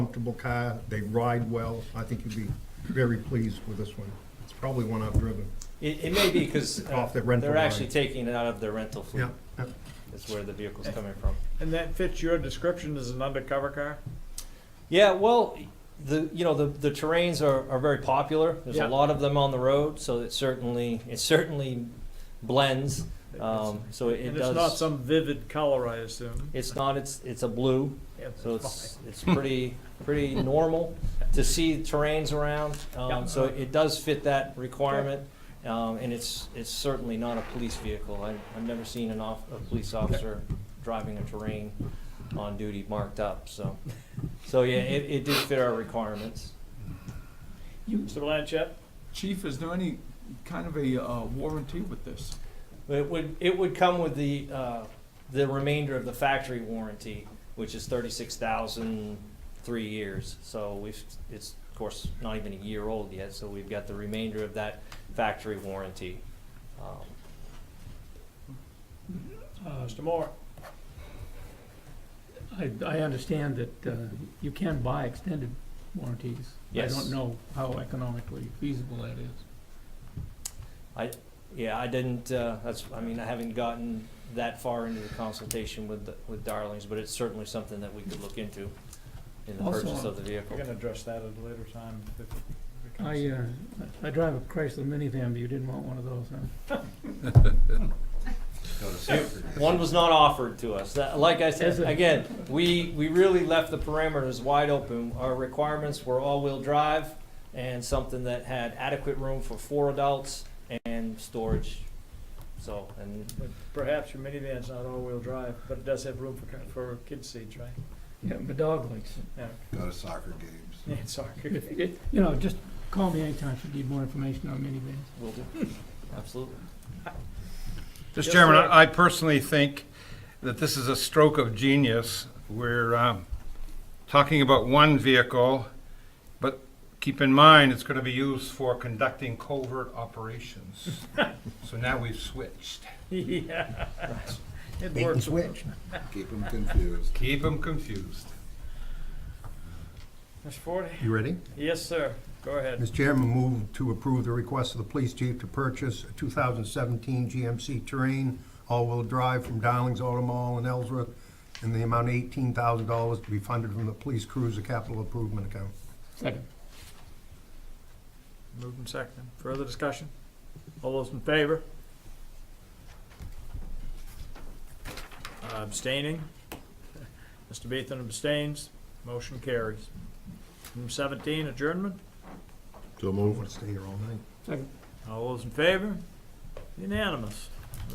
comfortable car. They ride well. I think you'd be very pleased with this one. It's probably one I've driven. It, it may be because Off the rental they're actually line. taking it out of their rental fleet. Yeah, yeah. Is where the vehicle's coming from. And that fits your description as an undercover car? Yeah, well, the, you know, the, the terrains are, are very popular. There's Yeah. a lot of them on the road, so it certainly, it certainly blends. Um, so it And does. it's not some vivid color, I assume? It's not, it's, it's a blue, Yeah, that's so it's, fine. it's pretty, pretty normal to see terrains around. Yeah. Um, so it does fit that requirement. Um, and it's, it's certainly not a police vehicle. I, I've never seen an off, a police officer driving a terrain on duty marked up, so. So, yeah, it, it did fit our requirements. Mr. Blanchett? Chief, is there any kind of a uh, warranty with this? It would, it would come with the, uh, the remainder of the factory warranty, which is thirty-six thousand, three years. So we've, it's, of course, not even a year old yet, so we've got the remainder of that factory warranty. Um, Mr. Moore? Uh, I, I understand that uh, you can buy extended warranties. I Yes. don't know how economically feasible that is. Yeah, I didn't, uh, that's, I mean, I haven't gotten that far into the consultation with, the- with Darlings, but it's certainly something that we could look into in the Also- purchase of the vehicle. We're gonna address that at a later time. if it I, becomes- uh, I drive a Chrysler minivan, but you didn't want one of those, huh? One was not offered to us. That- Like I said, Is it? again, we, we really left the parameters wide open. Our requirements were all-wheel drive and something that had adequate room for four adults and storage. So, and but Perhaps your minivan's not all-wheel drive, but it does have room for, car- for kid seats, right? Yeah, my dog likes it. Go to soccer games. Yeah, sorry. If- it- You know, just call me anytime if you need more information on minivans. we'll do, absolutely. Yes, Mr. Chairman, sir. I I personally think that this is a stroke of genius. We're um, talking about one vehicle, but keep in mind, it's going to be used for conducting covert operations. So now we've switched. Yeah. It Bait and works. switch. Keep them confused. Keep them confused. Mr. Forte? You ready? Yes, sir. Go ahead. Mr. Chairman, move to approve the request of the police chief to purchase a 2017 GMC Terrain all-wheel drive from Darlings Auto Mall in Ellsworth in the amount of $18,000 to be funded from the police cruiser capital improvement account. Second. Moved and seconded. Further discussion? All those in favor? Uh, Abstaining? Mr. Beathen abstains. Motion carries. Item seventeen, adjournment. So I move. want to stay here all night. Second. All those in favor? Unanimous.